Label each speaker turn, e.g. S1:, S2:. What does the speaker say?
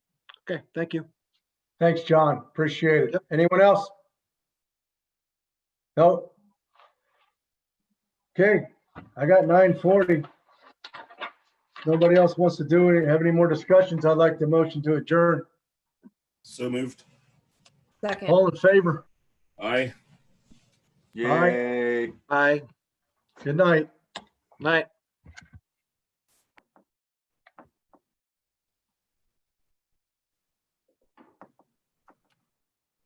S1: Okay, thank you.
S2: Thanks, John. Appreciate it.
S1: Yep.
S2: Anyone else? No? Okay, I got nine forty. Nobody else wants to do it, have any more discussions? I'd like to motion to adjourn.
S3: So moved.
S4: Second.
S2: All in favor?
S3: Aye.
S2: All right.
S5: Yay.
S1: Bye.
S2: Good night.
S1: Night.